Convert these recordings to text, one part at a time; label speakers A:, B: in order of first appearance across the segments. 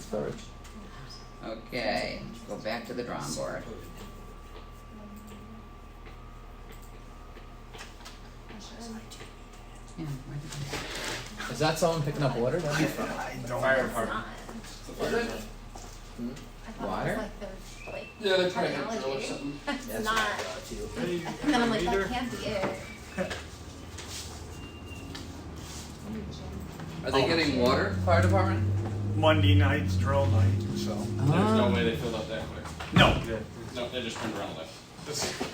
A: storage.
B: Okay, go back to the drawing board. Yeah, where did it-
A: Is that someone picking up water? That'd be fun.
C: Fire department.
D: It's
C: the fire department.
A: Hmm? Water?
C: Yeah, they probably got a drill or
D: Technology.
C: something.
D: It's not,
E: Hey,
D: and then I'm like,
E: reader?
D: that can't be it.
B: Are they getting water, fire department?
E: Monday night's drill night, so.
A: Uh-huh.
C: There's no way they filled up that quick.
E: No.
C: No, they just turned around and left.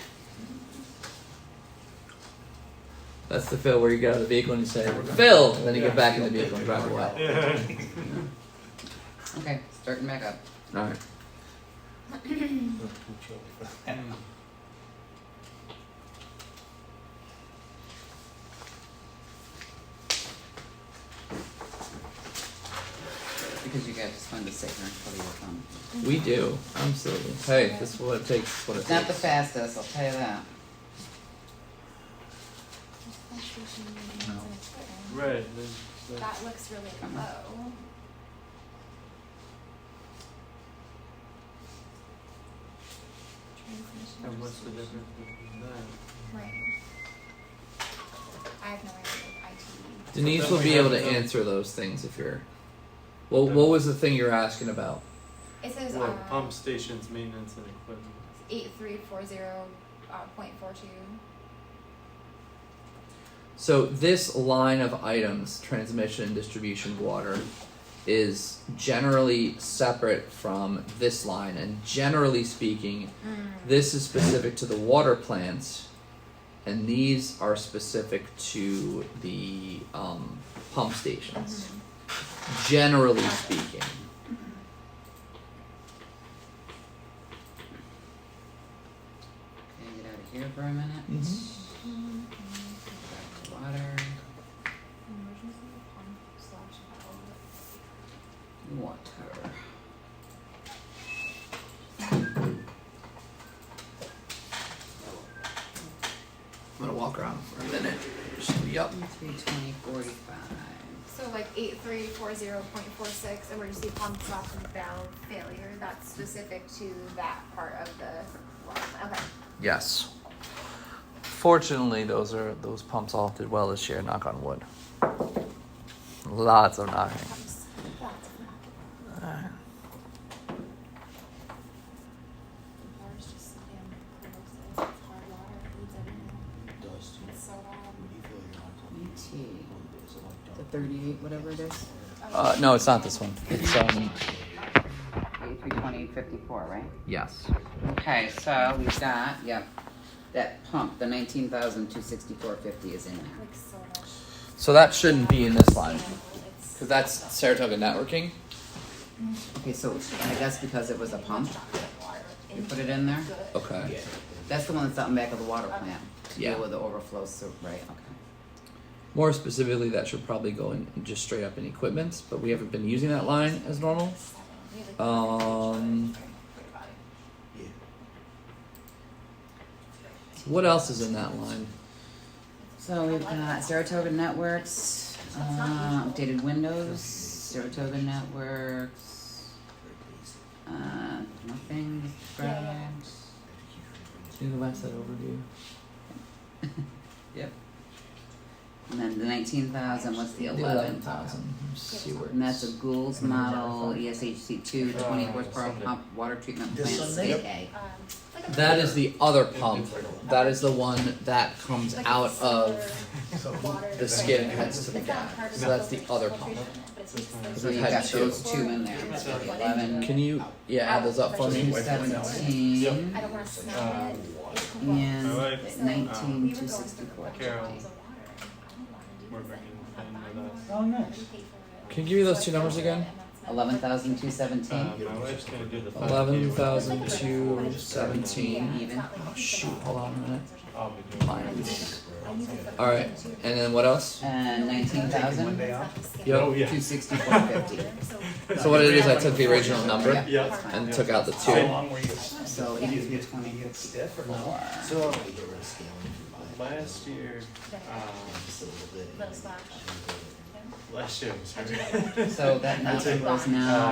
A: That's the fill where you get out of the vehicle and you say, Phil! And then you get back in the vehicle and drive away.
B: Okay, starting back up.
A: Alright.
B: Because you guys just wanted to sit here until you were done.
A: We do. Absolutely. Hey, this is what it takes. this is What it
B: It's not the
A: takes.
B: fastest, I'll tell you that.
E: Red.
D: That looks really
B: Come on.
D: low.
E: And what's the difference between
D: Right. I have no idea with IT.
A: Denise will be able to answer those things if you're. Well, what was the thing you're asking about?
D: It says,
E: that? Well,
D: uh,
E: pump stations, maintenance and equipment.
D: eight three four zero, uh, point four two.
A: So this line of items, transmission and distribution of water, is generally separate from this line, and generally speaking, this is specific to the water plants, and these are specific to the um, pump stations. Generally speaking.
B: Okay, get out of here for a minute. Mm-hmm. Back to water.
D: Emergency pump slash valve.
B: Water.
A: I'm gonna walk around for a minute. Just be up.
B: Three twenty forty-five.
D: So like eight three four zero point four six, emergency pump slash valve failure, that's specific to that part of the well, okay.
A: Yes. Fortunately, those are those pumps all did well this year. Knock on wood. Lots of knocking.
D: Pumps, lots of them. The water's just, damn corrosive, it's hard water, it leads everything,
F: Dust.
D: it's so bad.
F: You feel you're not going
B: ET,
F: to be so like
B: the thirty-eight, whatever it is.
A: Uh, no, it's not this one. It's um.
B: Eighty-three twenty fifty-four, right?
A: Yes.
B: Okay, so we've got, yep, that pump, the nineteen thousand two sixty-four fifty is in there.
D: Like so much.
A: So that shouldn't be in this line
D: It's-
A: because that's Saratoga networking.
B: Okay, so I guess because it was a pump, you put it in there?
A: Okay.
B: That's the one that's out in back of the water plant, to
A: Yeah.
B: deal with the overflow, so, right, okay.
A: More specifically, that should probably go in just straight up in equipment, but we haven't been using that line as normal. Um. What else is in that line?
B: So we've got Saratoga Networks, uh, updated windows, Saratoga Networks, uh, nothing, described.
A: Can you go back to that overview?
B: Yep. And then the nineteen thousand, what's the
A: Eleven
B: eleven?
A: thousand. See where.
B: And that's a
A: it's-
B: Gould's model, E ESHC two, twenty horsepower pump, water treatment plant, state A.
A: That is the other pump. That is the one that comes out of the skin and heads to the gap. So that's the other pump.
B: So you've got those two in there, eleven,
A: Can you, yeah, add those up for me?
B: two seventeen,
D: I don't
E: Uh,
D: wanna snap it. It can walk.
E: Alright.
B: and nineteen,
D: We were
B: two
D: going
B: sixty-four.
D: through the
E: Carol.
D: bottles of water. I don't wanna do this.
E: We're bringing
D: I
E: in
D: buy
E: with
D: more
E: us.
D: and
F: Oh, nice.
D: we pay for it.
A: Can you give me those
D: So I
A: two numbers
D: feel like
A: again?
D: that's not-
B: Eleven thousand, two
E: Uh,
B: seventeen.
E: my wife's gonna do the.
A: 11,217.
D: Yeah, it's not like
A: Oh,
D: we think
A: shoot.
D: about
A: Hold on a minute.
D: it.
E: I'll be doing it.
A: Mines.
D: I use it for-
A: Alright, and then what else?
B: And nineteen thousand,
A: Yep.
E: Oh, yeah.
B: two sixty-four fifty.
A: So what it is, I took the original number
B: Yeah.
E: Yeah.
A: and took out the
E: Same.
A: two.
F: long were you?
B: So eighteen, twenty-four.
F: Stiff or no? So we get rid of scaling if you buy it.
E: Last year, um,
F: Just a little bit.
D: Little slash.
F: And then-
E: last year was her.
B: So that number was now.